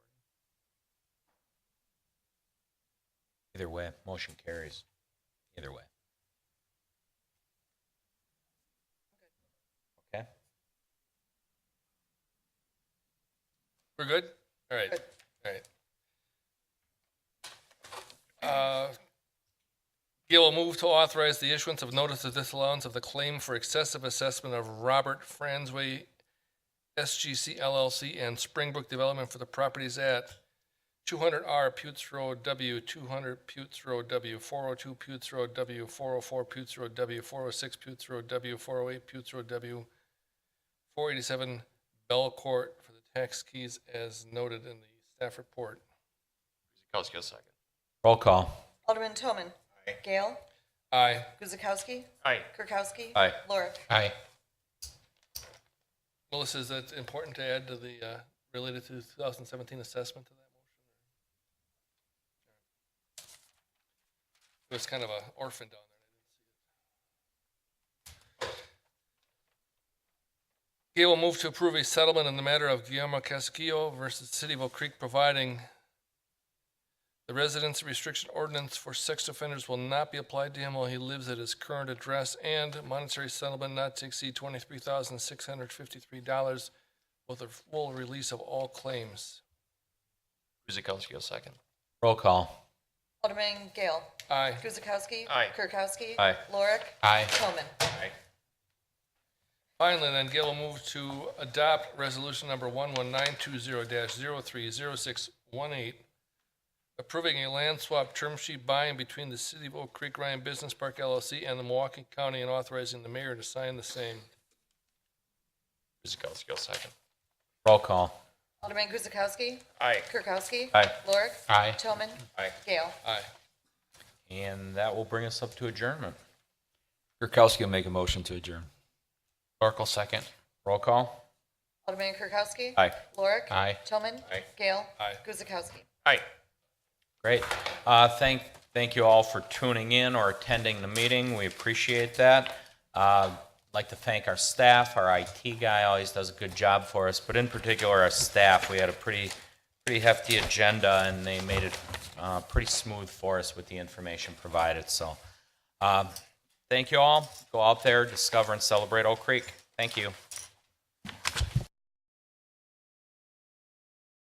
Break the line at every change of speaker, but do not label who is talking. Either way, motion carries. Either way. Okay?
We're good? All right, all right. Uh, Gail will move to authorize the issuance of notice of disallowance of the claim for excessive assessment of Robert Franzway SGC LLC and Springbrook Development for the properties at 200R Putes Road W, 200 Putes Road W, 402 Putes Road W, 404 Putes Road W, 406 Putes Road W, 408 Putes Road W, 487 Bell Court for the tax keys as noted in the staff report.
Guzekowski, a second.
Roll call.
Alderman Toman. Gale.
Aye.
Guzekowski.
Aye.
Kirkowski.
Aye.
Lorick.
Aye.
Melissa, is that important to add to the, uh, related to the 2017 assessment to that motion? It was kind of a orphan down there. Gail will move to approve a settlement in the matter of Guillermo Casquillo versus City of Oak Creek, providing the residence restriction ordinance for sex offenders will not be applied to him while he lives at his current address, and monetary settlement not to exceed twenty-three thousand six hundred fifty-three dollars with a full release of all claims.
Guzekowski, a second.
Roll call.
Alderman Gale.
Aye.
Guzekowski.
Aye.
Kirkowski.
Aye.
Lorick.
Aye.
Toman.
Finally, then Gail will move to adopt resolution number one one nine two zero 3 618 approving a land swap term sheet by and between the City of Oak Creek Ryan Business Park LLC and the Milwaukee County and authorizing the mayor to sign the same.
Guzekowski, a second.
Roll call.
Alderman Guzekowski.
Aye.
Kirkowski.
Aye.
Lorick.
Aye.
Toman.
Aye.
Gale.
Aye.
And that will bring us up to adjournment.
Kirkowski will make a motion to adjourn.
Oracle, second.
Roll call.
Alderman Kirkowski.
Aye.
Lorick.
Aye.
Toman.
Aye.
Gale.
Aye.
Guzekowski.
Aye.
Great. Uh, thank, thank you all for tuning in or attending the meeting. We appreciate that. Uh, like to thank our staff. Our IT guy always does a good job for us, but in particular, our staff. We had a pretty, pretty hefty agenda and they made it, uh, pretty smooth for us with the information provided. So, um, uh, thank you all. Go out there, discover and celebrate Oak Creek. Thank you.